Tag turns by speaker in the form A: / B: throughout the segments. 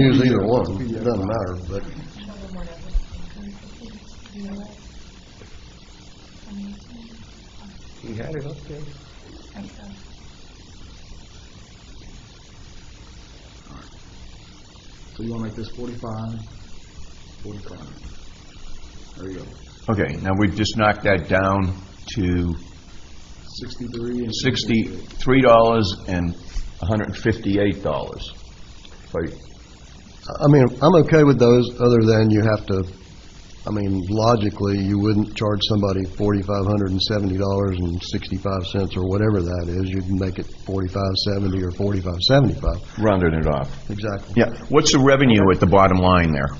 A: Use either one, it doesn't matter, but
B: You had it up there.
C: So you wanna make this forty-five, forty-five. There you go.
D: Okay, now we've just knocked that down to
C: Sixty-three and.
D: sixty-three dollars and hundred and fifty-eight dollars.
A: I mean, I'm okay with those, other than you have to, I mean, logically, you wouldn't charge somebody forty-five hundred and seventy dollars and sixty-five cents or whatever that is. You'd make it forty-five seventy or forty-five seventy-five.
D: Rounded it off.
A: Exactly.
D: Yeah, what's the revenue at the bottom line there?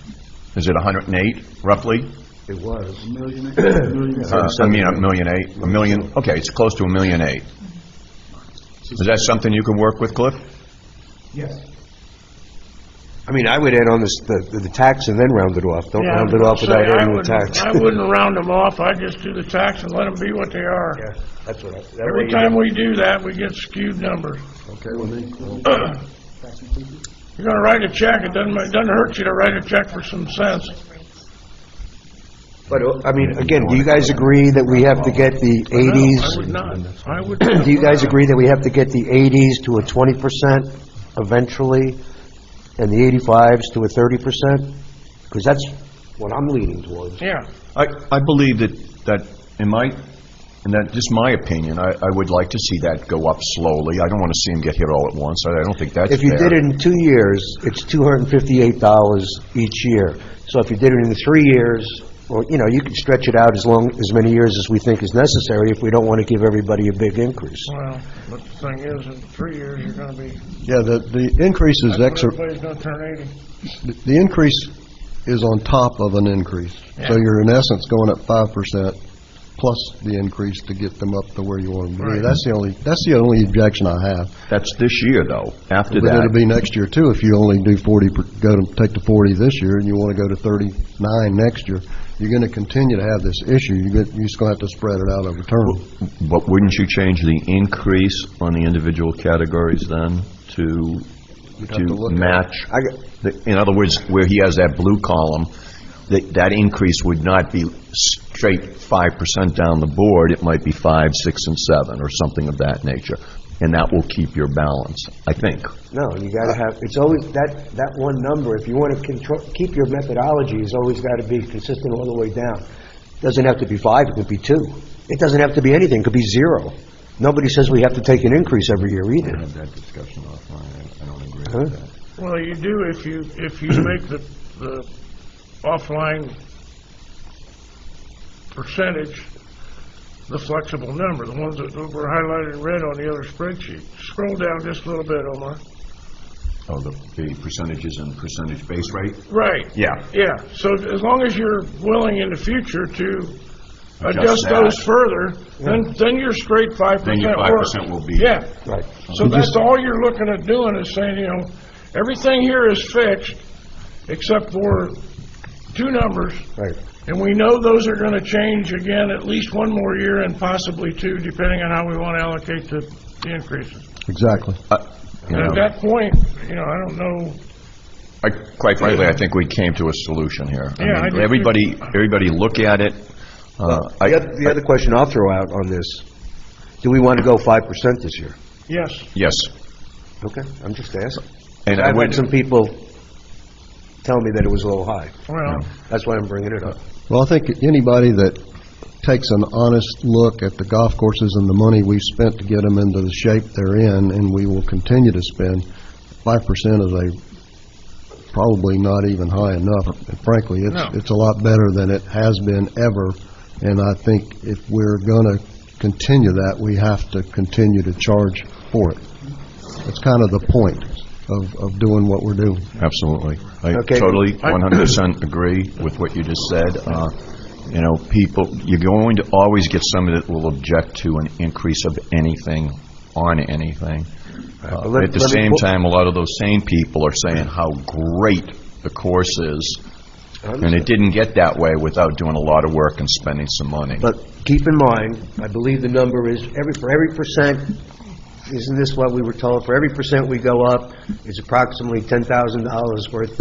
D: Is it hundred and eight roughly?
C: It was. A million, a million.
D: Uh, I mean, a million eight, a million, okay, it's close to a million eight. Is that something you can work with, Cliff?
C: Yes.
B: I mean, I would add on this, the, the tax and then round it off. Don't
E: Yeah,
B: round it off
E: say,
B: without
E: I
B: adding the
E: wouldn't-
B: tax.
E: I wouldn't round them off, I'd just do the tax and let them be what they are.
B: Yeah, that's what I, that way
E: Every
B: you
E: time
B: don't-
E: we do that, we get skewed numbers.
A: Okay with me.
E: You're gonna write a check, it doesn't, ma- it doesn't hurt you to write a check for some cents.
B: But, uh, I mean, again, do you guys agree that we have to get the
E: No,
B: eighties?
E: I would not, I would.
B: Do you guys agree that we have to get the eighties to a twenty percent eventually, and the eighty-fives to a thirty percent? Because that's what I'm leaning towards.
E: Yeah,
D: I, I believe that, that in my, and that, just my opinion, I, I would like to see that go up slowly. I don't want to see them get hit all at once. I I don't think that's fair.
B: If you did it in two years, it's two hundred and fifty-eight dollars each year. So if you did it in three years, or, you know, you can stretch it out as long, as many years as we think is necessary if we don't want to give everybody a big increase.
E: well, but the thing is, in three years, you're gonna be,
A: Yeah, the, the increase is exor,
E: everybody's gonna turn eighty.
A: the increase is on top of an increase. So
E: Yeah.
A: you're in essence going up five percent plus the increase to get them up to where you want them to be.
E: Right.
A: That's the only, that's the only objection I have.
D: That's this year, though. After
A: But it'll
D: that,
A: be next year too, if you only do forty, per- go to, take the forty this year, and you wanna go to thirty-nine next year, you're gonna continue to have this issue, you're gonna, you're just gonna have to spread it out over term.
D: but wouldn't you change the increase on the individual categories then to,
A: We'd have to
D: to
A: look at it.
D: match?
B: I got-
D: The- In other words, where he has that blue column, that, that increase would not be straight five percent down the board, it might be five, six, and seven, or something of that nature. And that will keep your balance, I think.
B: No, you gotta have, it's always, that, that one number, if you wanna control, keep your methodology, has always gotta be consistent all the way down. Doesn't have to be five, it could be two. It doesn't have to be anything, it could be zero. Nobody says we have to take an increase every year either.
D: that discussion offline, I don't agree
B: Huh? that.
E: Well, you do if you, if you make the, the offline percentage the flexible number, the ones that were highlighted in red on the other spreadsheet. Scroll down just a little bit, Omar.
D: Oh, the, the percentages and percentage base rate?
E: Right.
D: Yeah.
E: Yeah, so as long as you're willing in the future to
D: Adjust
E: adjust those
D: that.
E: further, then, then you're straight five
D: Then
E: percent
D: your
E: work.
D: 5% will be-
E: Yeah,
B: Right.
E: so that's all you're looking at doing is saying, you know, everything here is fixed except for two numbers.
B: Right.
E: And we know those are gonna change again at least one more year and possibly two, depending on how we wanna allocate the, the increases.
A: Exactly.
D: Uh,
E: And at that point, you know, I don't know,
D: I, quite frankly, I think we came to a solution here. I
E: Yeah, I
D: mean,
E: do too.
D: Everybody, everybody look at it. Uh, I-
B: The oth- the other question I'll throw out on this, do we wanna go five percent this year?
E: yes,
D: Yes.
B: Okay, I'm just asking.
D: And I
B: I've had
D: went,
B: some people tell me that it was a little high.
E: well,
B: That's why I'm bringing it up.
A: Well, I think anybody that takes an honest look at the golf courses and the money we've spent to get them into the shape they're in, and we will continue to spend, five percent is a, probably not even high enough. Frankly, it's,
E: No.
A: it's a lot better than it has been ever, and I think if we're gonna continue that, we have to continue to charge for it. That's kind of the point of, of doing what we're doing.
D: absolutely. I
B: Okay.
D: totally, 100% agree with what you just said. Uh, You know, people, you're going to always get somebody that will object to an increase of anything on anything. Uh,
B: let-
D: At the
B: let me
D: same
B: pull-
D: time, a lot of those same people are saying how great the course is, and it didn't get that way without doing a lot of work and spending some money.
B: But keep in mind, I believe the number is every, for every percent isn't this what we were told? For every percent we go up, it's approximately $10,000 worth